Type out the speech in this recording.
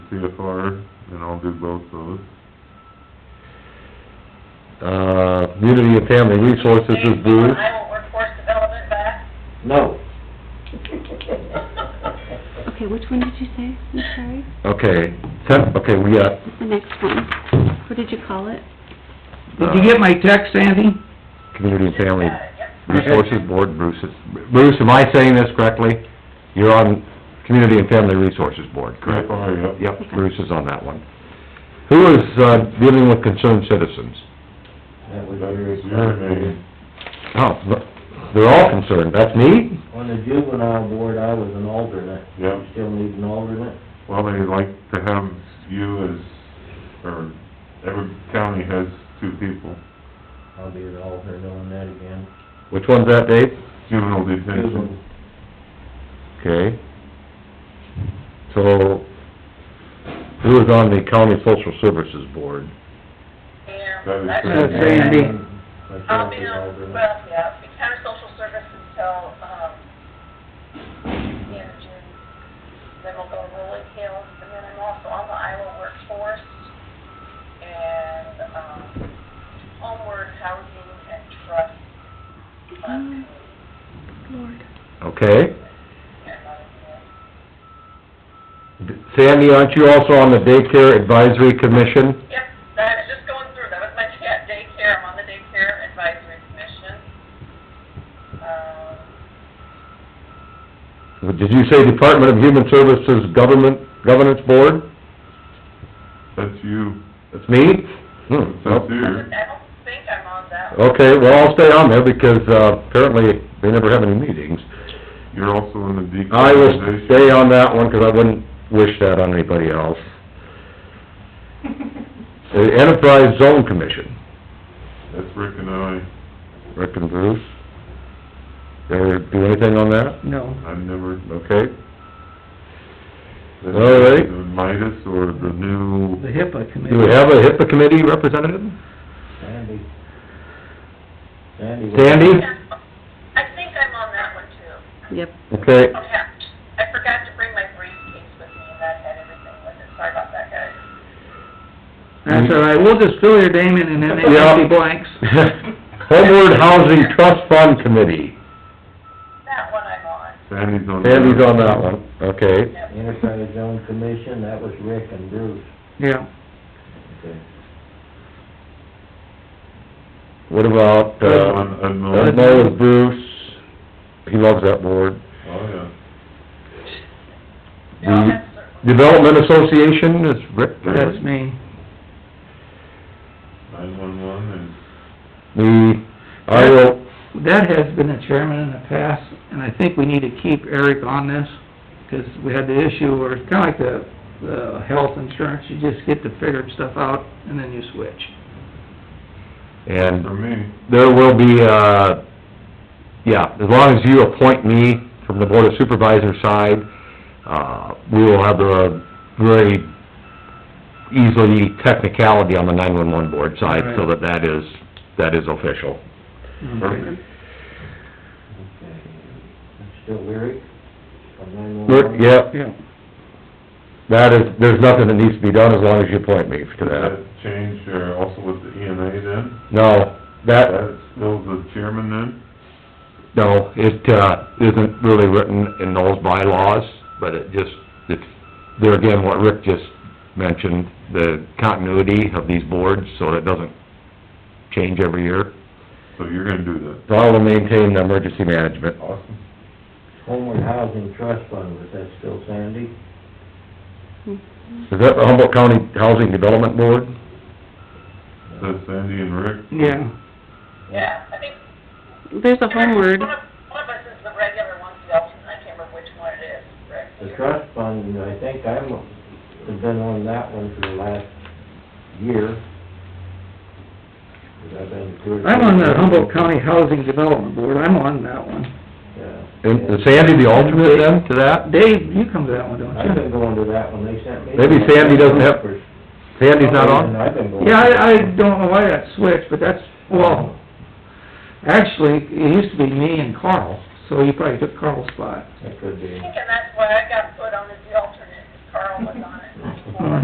CFR, and I'll do both those. Uh, Community and Family Resources is Bruce. I will workforce development back. No. Okay, which one did you say? I'm sorry. Okay, ten, okay, we uh, got, The next one. What did you call it? Did you uh, get my text, Sandy? Community and Family Uh, yep. Resources Board, Bruce is, Bruce, am I saying this correctly? You're on Community and Family Resources Board, correct? CFR, yep. Yep, Bruce is on that one. Who is, uh, dealing with concerned citizens? That was That is your name. Oh, look, they're all concerned, that's me? On the juvenile board, I was an alternate. Yep. You Still need an alternate? Well, they like to have you as, or every county has two people, I'll be the alternate on that again. Which one's that, Dave? juvenile detention. Okay. So, who is on the County Social Services Board? And That is that's- Sandy. That's Sandy. I'll be on, Um, well, yeah, I'll be counter social services till, um, the end of June. Then we'll go to Rolling Hills, and then I'm also on the Iowa workforce and, um, homeward housing and trust. fund. Mm. Lord. Okay. And, uh, Sandy, aren't you also on the Daycare Advisory Commission? Yep, that, just going through, that was my cat daycare, I'm on the daycare advisory commission. Um, Did you say Department of Human Services Government, Governance Board? That's you, That's me? Hmm, that's nope. I you. don't- I don't think I'm on that. one. Okay, well, I'll stay on there because, uh, apparently they never have any meetings. You're also in the decriminalization. I will stay on that one because I wouldn't wish that on anybody else. The Enterprise Zone Commission, That's Rick and I. Rick and Bruce. Ever do anything on that? No. I've never... Okay. All right. The Midas or the new... HIPAA Do we have a HIPAA committee representative? Sandy. Sandy. was- Sandy? Yeah, I think I'm on that one too. Yep. Okay, Oh, yeah, I forgot to bring my briefcase with me, and that had everything with it, sorry about that, guys. That's all right, we'll just fill your name in and then they Yeah. have the blanks. Homeward Housing Trust Fund Committee, That one I'm on, Sandy's on... Sandy's on that one, okay. yep. Enterprise Zone Commission, that was Rick and Bruce. Yeah, Okay. What about, That uh, one, I know. uh, Noah's Bruce, he loves that board. Oh, yeah. Yeah, The that's certain. Development Association is Rick. there. that's me. Nine-one-one The Iowa, That has been a chairman in the past, and I think we need to keep Eric on this, 'cause we had the issue where it's kinda like the, the health insurance, you just get to figure stuff out and then you switch. and, and for me, there will be, uh, yeah, as long as you appoint me from the Board of Supervisor side, uh, we will have a very easily technicality on the nine-one-one board side, so that that is, that is official. perfect. Okay. Still Rick? From nine one Rick, one? yeah, Yeah. that is, there's nothing that needs to be done as long as you appoint me to Did that. that change, uh, also with the EMA then? No, that, That's still the chairman then? no, it, uh, isn't really written in those bylaws, but it just, it's, there again, what Rick just mentioned, the continuity of these boards, so it doesn't change every year. So you're gonna do that. So I will maintain the emergency management. Awesome. Homeward Housing Trust Fund, was that still Sandy? Hmm. Is that the Humboldt County Housing Development Board? That's Sandy and Rick. Yeah, Yeah, I think. There's a homeward. One of one of us is the regular one, the alternate, I can't remember which one it is, Rick. The you're- trust fund, I think I'm, have been on that one for the last year. 'Cause I've been to two or I'm on three- the Humboldt County Housing Development Board, I'm on that one. Yeah. And is Sandy the alternate then to that? Dave, you come to that one, don't you? I've been going to that one, they sent me. Maybe Sandy doesn't have- Sandy's not on? I've been going. Yeah, I, I don't know why that switched, but that's, well, actually, it used to be me and Carl, so you probably took Carl's spot. That could I be. think, and that's why I got put on as the alternate, 'cause Carl was on it.